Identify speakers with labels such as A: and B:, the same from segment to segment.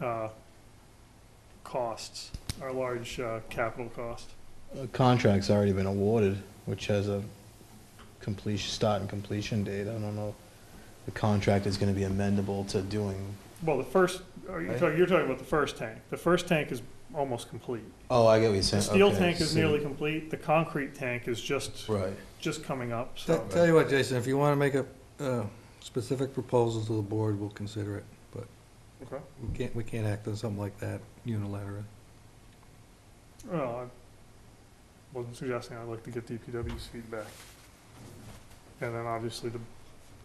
A: uh, costs, our large uh, capital cost.
B: A Uh, contract's already been awarded, which has a completion, start and completion date. I don't know. if The contract is gonna be amendable to doing,
A: Well, the first, are you
B: Right.
A: talking, you're talking about the first tank. The first tank is almost complete.
B: oh, I get what you're
A: The
B: saying.
A: steel
B: Okay,
A: tank is
B: so-
A: nearly complete, the concrete tank is just,
B: Right.
A: just coming up,
C: Tell-
A: so.
C: Tell you what, Jason, if you want to make a uh, specific proposal to the board, we'll consider it.
A: Okay.
C: We can't, we can't act on something like that unilaterally.
A: Well, I wasn't suggesting, I'd like to get DPW's feedback. And then obviously the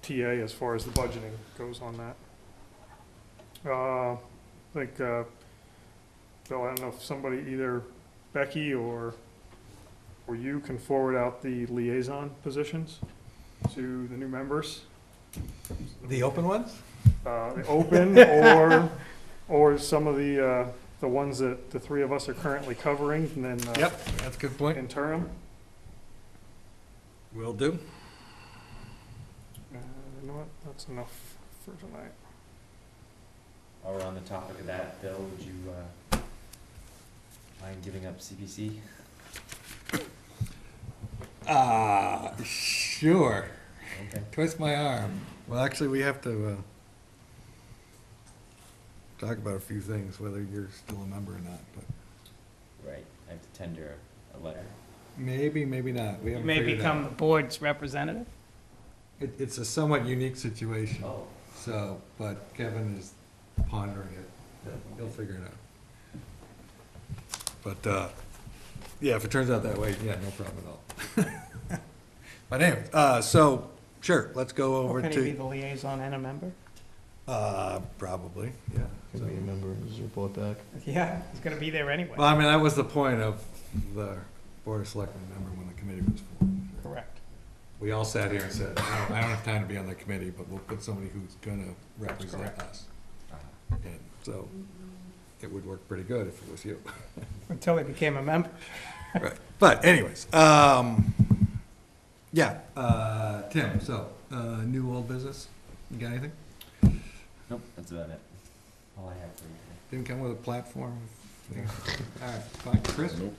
A: TA as far as the budgeting goes on that. Uh, I think, uh, Bill, I don't know if somebody, either Becky or, or you can forward out the liaison positions to the new members.
C: The open ones?
A: Uh, open or, or some of the, uh, the ones that the three of us are currently covering and then. uh,
C: that's a good point.
A: interim.
C: Will do.
A: Uh, you know what? That's enough for tonight.
D: While we're on the topic of that, Bill, would you, uh, mind giving up CPC?
E: Ah, sure.
D: Okay.
E: Twist my arm.
C: Well, actually, we have to uh, talk about a few things, whether you're still a member or not, but
D: Right, I have to tender a letter.
C: maybe, maybe not. We
F: You
C: haven't
F: may
C: figured it out.
F: become the board's representative.
C: It- It's a somewhat unique situation,
D: Oh.
C: so, but Kevin is pondering it. He'll figure it out. But, uh, yeah, if it turns out that way, yeah, no problem at all. But anyway, uh, so, sure, let's go over
F: Can he be
C: to,
F: the liaison and a member?
C: uh, probably, yeah.
B: Can we remember his report back?
F: Yeah, he's gonna be there anyway.
C: Well, I mean, that was the point of the Board of Selectmen member when the committee was formed.
F: Correct.
C: We all sat here and said, I don't, I don't have time to be on the committee, but we'll put somebody who's gonna represent us. And so, it would work pretty good if it was you.
F: Until he became a member.
C: Right. But anyways, um, yeah, uh, Tim, so, uh, new old business, you got anything?
D: Nope, that's about it. All I have for you.
C: Didn't come with a platform? All right, fine, Chris?
G: Nope.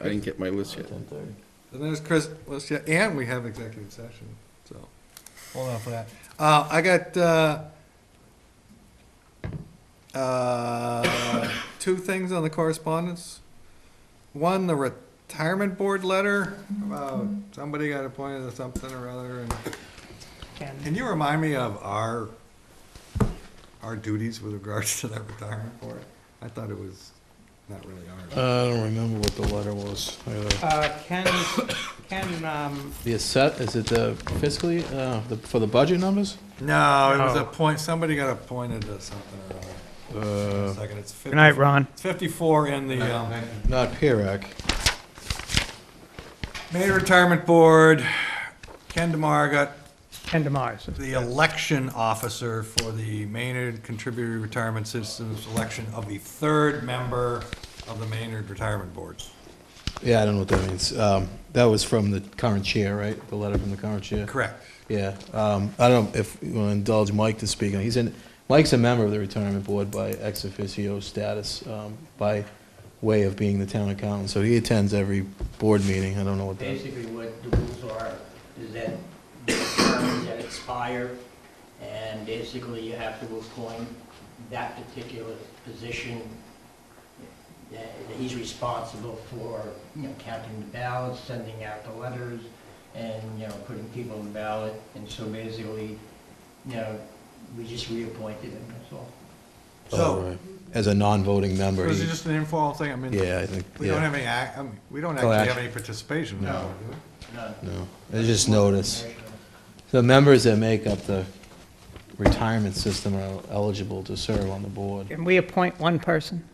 G: I didn't get my list yet.
B: Ten thirty.
C: And there's Chris, let's, yeah, and we have executive session, so, hold on for that. Uh, I got, uh, uh, two things on the correspondence. One, the retirement board letter, about somebody got appointed to something or other, and
F: And
C: Can you remind me of our, our duties with regards to that retirement board? I thought it was not really ours.
B: Uh, I don't remember what the letter was. I gotta-
F: uh, Ken, Ken, um,
B: The asset, is it the fiscally, uh, the- for the budget numbers?
C: No, it was
F: No.
C: a point, somebody got appointed to something or other.
B: Uh,
C: Second, it's fifty.
F: good night, Ron.
C: It's fifty-four in the, um,
B: not E PIRAC.
C: Maine Retirement Board. Ken DeMar got
F: Ken DeMars.
C: the election officer for the Maynard Contributory Retirement Systems election of the third member of the Maynard Retirement Board.
B: Yeah, I don't know what that means. Um, that was from the current chair, right? The letter from the current chair?
C: Correct.
B: Yeah, um, I don't know if you want to indulge Mike to speak on, he's in, Mike's a member of the retirement board by ex officio status, um, by way of being the town accountant, so he attends every board meeting, I don't know what that.
H: Basically, what the rules are is that the terms that expire, and basically you have to appoint that particular position that that he's responsible for, you know, counting the ballots, sending out the letters, and, you know, putting people on the ballot. And so basically, you know, we just reappointed him, that's all.
C: So,
B: oh, As a non-voting member,
C: was it
B: he-
C: just an informal thing? I mean.
B: yeah, I think,
C: We don't
B: yeah,
C: have any, ac- I mean, we don't
B: No
C: actually have
B: action.
C: any participation now,
H: No.
C: do we?
H: None.
B: no, it's just notice. The members that make up the retirement system are eligible to serve on the board.
F: Can we appoint one person?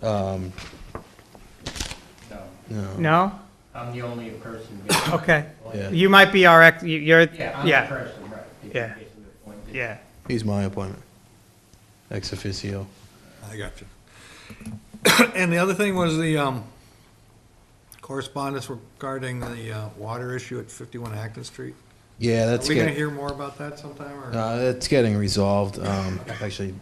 B: Um,
H: No,
B: no,
F: No?
H: I'm the only person.
F: Okay.
B: Yeah.
F: You might be our, ex. you- you're,
H: Yeah, I'm the
F: yeah,
H: person, right.
F: Yeah.
H: Basically appointed.
F: yeah.
B: he's my appointment, ex officio.
C: I got you. And the other thing was the um, correspondence regarding the uh, water issue at 51 Acton Street.
B: Yeah,
C: Are
B: that's
C: we
B: good.
C: gonna hear more about that sometime, or?
B: Uh, it's getting resolved. Um, actually,